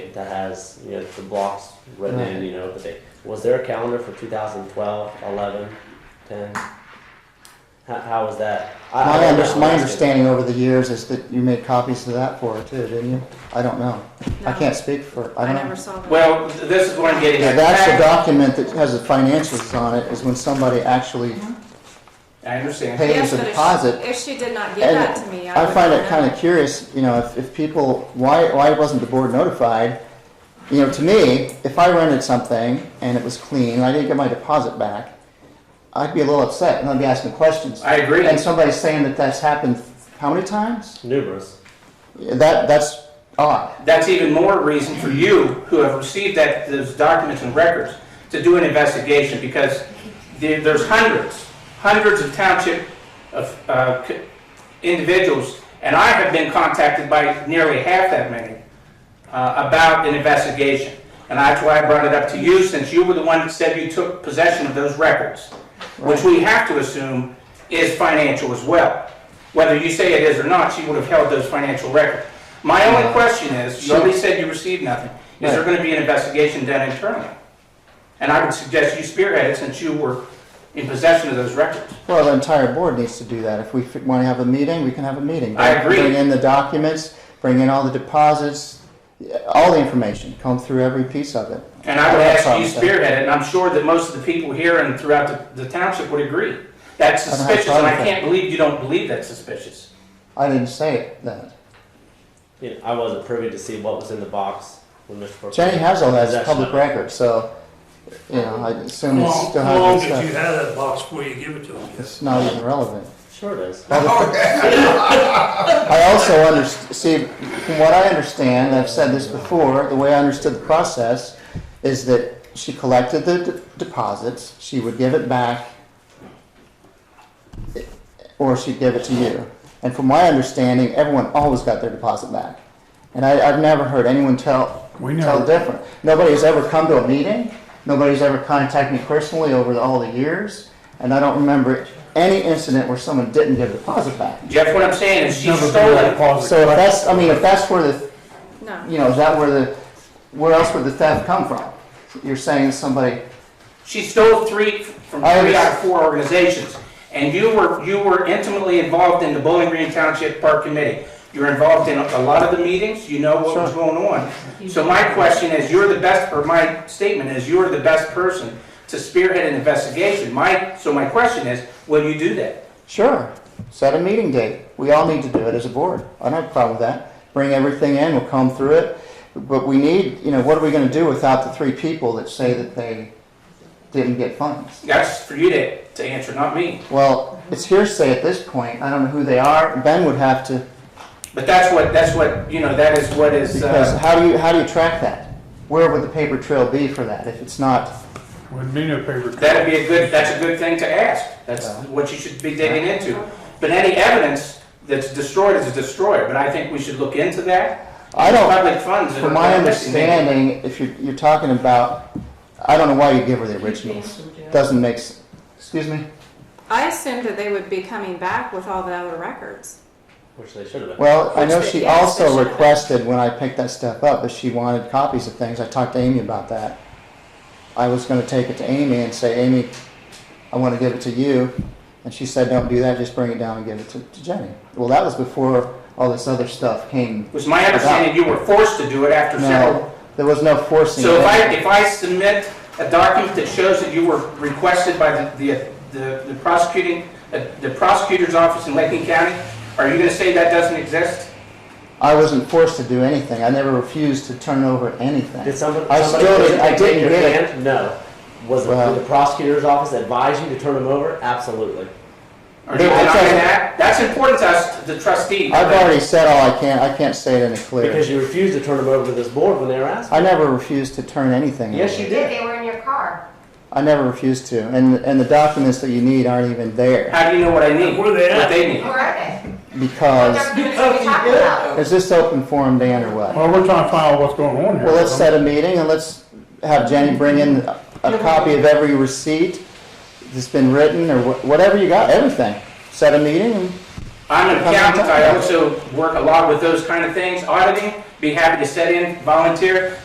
website that has you know, the blocks written Right. in, you know, but they, was there a calendar for 2012, 11, 10? How, how was that? I- I My, don't under, know. my understanding over the years is that you made copies of that for her too, didn't you? I don't know. I No. can't speak for, I I don't never know. saw that. Well, th- this is what I'm getting Yeah, at. that's the document that has the financials on it, is when somebody actually, I understand. Hey, Mhm. it's Yes, a but if she- deposit. If she did not give And that to me, I I would find not it know. kind of curious, you know, if, if people, why, why wasn't the board notified? You know, to me, if I rented something and it was clean, and I didn't get my deposit back, I'd be a little upset, and I'd be asking questions. I agree. And somebody's saying that that's happened how many times? Numerous. That, that's odd. That's even more reason for you, who have received that, those documents and records, to do an investigation, because there- there's hundreds, hundreds of township of uh, c- individuals, and I have been contacted by nearly half that many uh, about an investigation. And that's why I brought it up to you, since you were the one that said you took possession of those records, which we have to assume is financial as well. Whether you say it is or not, she would have held those financial records. My only question is, you already said you received nothing. Is there Right. going to be an investigation done internally? And I would suggest you spearhead it since you were in possession of those records. Well, the entire board needs to do that. If we want to have a meeting, we can have a meeting. I agree. Bring in the documents, bring in all the deposits, eh, all the information, comb through every piece of it. And I would That's ask all you I'm saying. spearhead it, and I'm sure that most of the people here and throughout the the township would agree. That's don't have a suspicious, and problem I with that. can't believe you don't believe that's suspicious. I didn't say it then. You know, I wasn't privy to see what was in the box when Mr. Brooks- Jenny has all that as Possession public of it. record, so, you know, I assume How you long, still how long have did that you stuff. have that box before you give it to them? It's not even relevant. Sure it is. I also underst see, from what I understand, and I've said this before, the way I understood the process is that she collected the d- deposits, she would give it back, or she'd give it to you. And from my understanding, everyone always got their deposit back. And I, I've never heard anyone tell, We tell never- different. Nobody's ever come to a meeting, nobody's ever contacted me personally over all the years, and I don't remember any incident where someone didn't give a deposit back. Jeff, what I'm saying is she Never been stole a it. deposit. So if that's, I mean, if that's where the, No, you know, is that where the, where else would the theft come from? You're saying somebody, She stole three from I three out of understand. four organizations. And you were, you were intimately involved in the Bowling Green Township Park Committee. You're involved in a lot of the meetings, you know what was going on. So my question is, you're the best, or my statement is, you're the best person to spearhead an investigation. My, so my question is, will you do that? sure, set a meeting date. We all need to do it as a board. I don't have a problem with that. Bring everything in, we'll comb through it. But we need, you know, what are we gonna do without the three people that say that they didn't get funds? That's for you to, to answer, not me. Well, it's hearsay at this point. I don't know who they are. Ben would have to, But that's what, that's what, you know, that is what is, because uh, how do you, how do you track that? Where would the paper trail be for that if it's not? Wouldn't be no paper. trail. that'd be a good, that's a good thing to ask. That's what you should be digging into. But any evidence that's destroyed is destroyed, but I think we should look into that. I don't- Public funds. that From are- my understanding, if you're, you're talking about, I don't know why you give her the originals. Doesn't make, s- excuse me? I assumed that they would be coming back with all the other records. Which they should have been. Well, I know Which she they- yes, they should also have. requested when I picked that stuff up, that she wanted copies of things. I talked to Amy about that. I was gonna take it to Amy and say, Amy, I wanna give it to you. And she said, don't do that, just bring it down and give it to, to Jenny. Well, that was before all this other stuff came. It was my understanding you were forced to do it after several. No, there was no forcing. So if it. I, if I submit a document that shows that you were requested by the- the, the the prosecuting, uh, the prosecutor's office in Lakin County, are you gonna say that doesn't exist? I wasn't forced to do anything. I never refused to turn over anything. Did somebody, I somebody still didn't- I physically didn't take your get it. hand? No. Was the, Well- did the prosecutor's office advise you to turn them over? Absolutely. Are you They- denying it's a- that? That's important to us, the trustee. I've already said all I can. I can't say it any clearer. Because you refused to turn them over to this board when they were asked. I never refused to turn anything. Yes, over. you You did. did, they were in your car. I never refused to, and and the documents that you need aren't even there How do you know what I need? Where they at? What they need. Where are they? What because documents are we talking about? is this open forum, Dan, or what? Well, we're trying to find out what's going on here. Well, let's set a meeting and let's have Jenny bring in a, a copy of every receipt that's been written or wha- whatever you got, everything. Set a meeting and I'm an Come accountant, on, I tell me. also work a lot with those kind of things, auditing, be happy to set in, volunteer.